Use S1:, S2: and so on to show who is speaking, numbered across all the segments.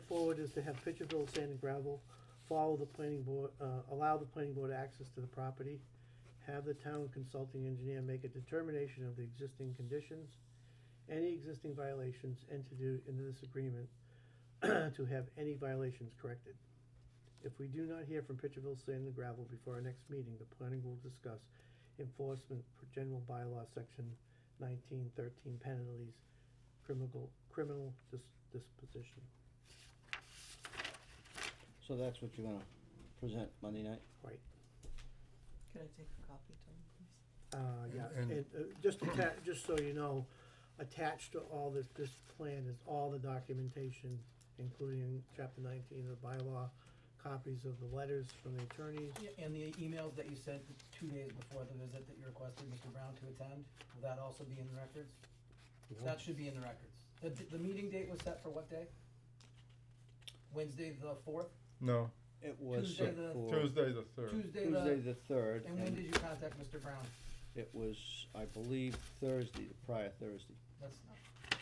S1: forward is to have Pitcherville Sand and Gravel follow the planning board, uh, allow the planning board access to the property, have the town consulting engineer make a determination of the existing conditions, any existing violations entered into into this agreement, to have any violations corrected. If we do not hear from Pitcherville Sand and Gravel before our next meeting, the planning will discuss enforcement for general bylaw section nineteen thirteen penalties, criminal, criminal dis- disposition.
S2: So that's what you're gonna present Monday night?
S1: Right,
S3: Can I take a copy, Tom, please?
S1: uh, yeah,
S4: And-
S1: and, uh, just atta just so you know, attached to all this, this plan is all the documentation, including chapter nineteen of the bylaw, copies of the letters from the attorneys,
S5: Yeah, And the emails that you sent two days before the visit that you requested Mr. Brown to attend, will that also be in the records?
S1: you know.
S5: That should be in the records. The, the meeting date was set for what day? Wednesday the fourth,
S4: No,
S2: It was
S5: Tuesday the-
S2: for
S4: Tuesday the third.
S5: Tuesday
S2: Tuesday
S5: the,
S2: the third,
S5: and when did
S2: and
S5: you contact Mr. Brown?
S2: it was, I believe, Thursday, the prior Thursday.
S5: That's not,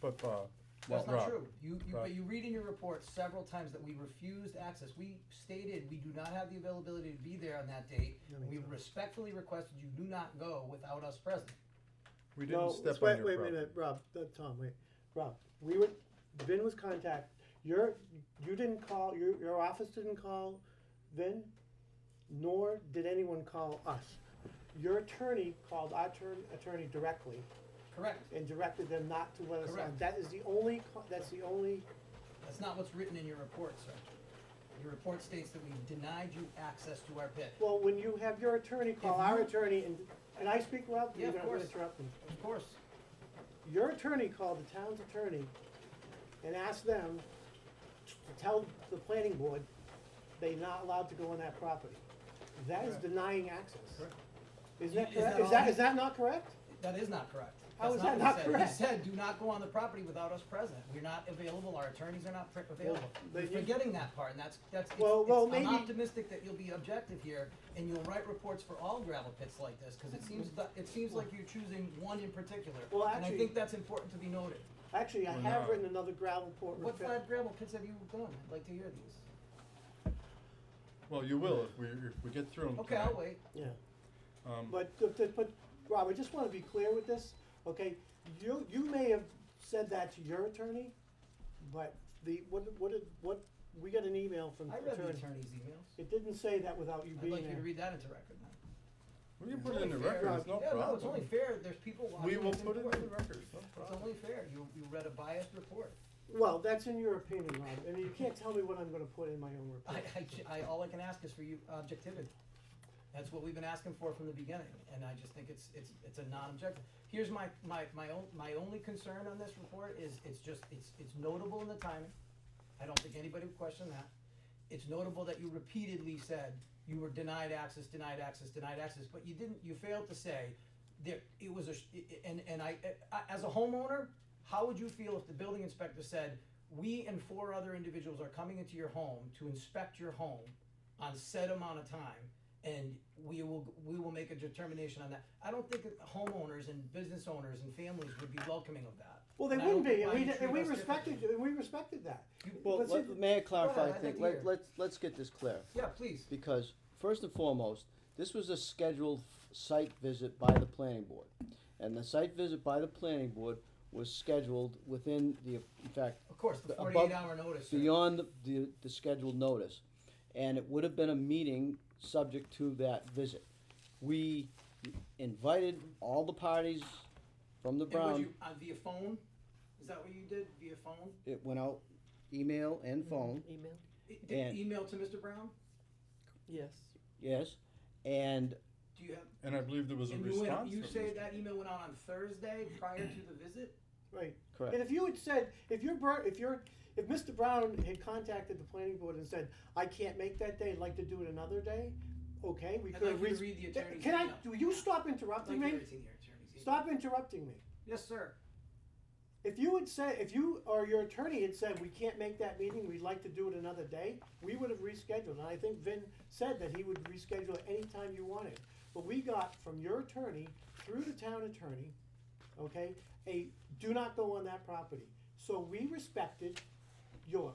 S4: But Bob,
S5: that's
S4: Rob,
S5: not true. You, you,
S4: Rob.
S5: but you read in your report several times that we refused access. We stated we do not have the availability to be there on that date.
S1: That makes
S5: We
S1: sense.
S5: respectfully requested you do not go without us present.
S4: we
S1: No,
S4: didn't step
S1: wait-
S4: on
S1: Wait,
S4: your
S1: wait a
S4: property.
S1: minute, Rob, uh, Tom, wait, Rob, we were, Vin was contact, your, you didn't call, your, your office didn't call Vin, nor did anyone call us. Your attorney called our turn- attorney directly
S5: Correct.
S1: and directed them not to let us on.
S5: Correct.
S1: That is the only, co- that's the only,
S5: That's not what's written in your report, sir. Your report states that we denied you access to our pit.
S1: well, when you have your attorney call
S5: If
S1: our
S5: you-
S1: attorney and, and I speak well,
S5: Yeah,
S1: you're
S5: of
S1: not gonna
S5: course.
S1: interrupt me.
S5: Of course,
S1: Your attorney called the town's attorney and asked them to tell the planning board they're not allowed to go on that property. That is
S5: Correct.
S1: denying access.
S5: Correct.
S1: Isn't that
S5: Is that
S1: correct? Is
S5: all
S1: that,
S5: he-
S1: is that not correct?
S5: that is not correct.
S1: How
S5: That's
S1: is that
S5: what
S1: not
S5: he said.
S1: correct?
S5: He said, do not go on the property without us present. We're not available, our attorneys are not pr- available.
S1: they-
S5: You're forgetting that part, and that's, that's, it's-
S1: Well, well,
S5: it's- I'm
S1: maybe-
S5: optimistic that you'll be objective here, and you'll write reports for all gravel pits like this, because it seems, that- it seems like you're choosing one in particular.
S1: Well,
S5: And I
S1: actually-
S5: think that's important to be noted.
S1: Actually, I
S4: Well,
S1: have
S4: no.
S1: written another gravel port
S5: What
S1: repair.
S5: five gravel pits have you done? I'd like to hear these.
S4: Well, you will if we, if we get through them.
S5: Okay, I'll wait.
S1: Yeah,
S4: Um,
S1: but, the- the- but, Rob, I just wanna be clear with this, okay? You, you may have said that to your attorney, but the, what, what, did- what, we got an email from the
S5: I read the
S1: attorney.
S5: attorney's emails.
S1: It didn't say that without you
S5: I'd
S1: being there.
S5: like you to read that into record now.
S4: we can put it in the
S5: It's only fair.
S4: record, it's no
S5: Yeah, no, it's only
S4: problem.
S5: fair, there's people watching.
S4: We will
S5: It's
S4: put it in the
S5: important.
S4: record, it's no
S5: It's
S4: problem.
S5: only fair, you, you read a biased report.
S1: Well, that's in your opinion, Rob. I mean, you can't tell me what I'm gonna put in my own
S5: I,
S1: report.
S5: I, ju- I, all I can ask is for you objectivity. That's what we've been asking for from the beginning, and I just think it's, it's, it's a non-objective. Here's my, my, my own, my only concern on this report is, it's just, it's, it's notable in the timing. I don't think anybody would question that. It's notable that you repeatedly said you were denied access, denied access, denied access, but you didn't, you failed to say that it was a, sh- i- i- and, and I, I- as a homeowner, how would you feel if the building inspector said, we and four other individuals are coming into your home to inspect your home on set amount of time, and we will, we will make a determination on that? I don't think homeowners and business owners and families would be welcoming of that.
S1: Well, they
S5: And I don't
S1: wouldn't be,
S5: think
S1: and
S5: why
S1: we,
S5: you
S1: did- and we
S5: treat us
S1: respected,
S5: differently.
S1: and we respected that.
S2: Well,
S1: Let's
S2: let-
S1: see-
S2: may I
S5: ahead,
S2: clarify, I
S5: I'd like
S2: think,
S5: to hear.
S2: let, let's, let's get this clear.
S5: Yeah, please.
S2: Because first and foremost, this was a scheduled f- site visit by the planning board. And the site visit by the planning board was scheduled within the, in fact,
S5: Of course, the
S2: The above-
S5: forty-eight hour notice. sir.
S2: beyond the, the, the scheduled notice. And it would have been a meeting subject to that visit. We invited all the parties from the
S5: And would
S2: Brown,
S5: you, uh, via phone? Is that what you did, via phone?
S2: it went out, email and phone,
S3: Email?
S5: E- Did
S2: And-
S5: email to Mr. Brown?
S3: Yes.
S5: Mm-hmm.
S2: yes, and
S5: Do you have,
S4: And I believe there was a
S5: and you went,
S4: response
S5: you
S4: from
S5: say
S4: Mr.
S5: that email went out on Thursday prior to the visit?
S1: Right.
S2: correct.
S1: And if you had said, if your, bro- if your, if Mr. Brown had contacted the planning board and said, I can't make that day, I'd like to do it another day, okay, we
S5: I'd
S1: could have.
S5: like you to
S1: re-
S5: read the
S1: Th-
S5: attorney's
S1: Can I,
S5: email.
S1: do you stop
S5: I'd like
S1: interrupting
S5: you to
S1: me?
S5: read the attorney's email.
S1: Stop interrupting me.
S5: Yes, sir.
S1: If you had said, if you or your attorney had said, we can't make that meeting, we'd like to do it another day, we would have rescheduled, and I think Vin said that he would reschedule it anytime you wanted. But we got from your attorney, through the town attorney, okay, a do not go on that property. So we respected your